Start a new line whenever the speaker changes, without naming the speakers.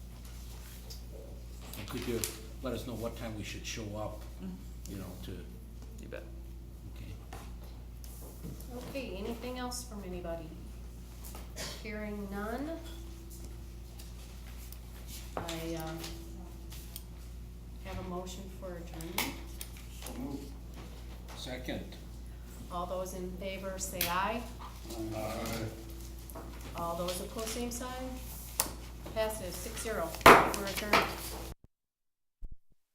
could you let us know what time we should show up, you know, to,
Mm-hmm. You bet.
okay?
Okay, anything else from anybody? Hearing none. I, um, have a motion for adjournment.
So moved. Second.
All those in favor say aye. All those opposed, same sign. Passes six zero. We're adjourned.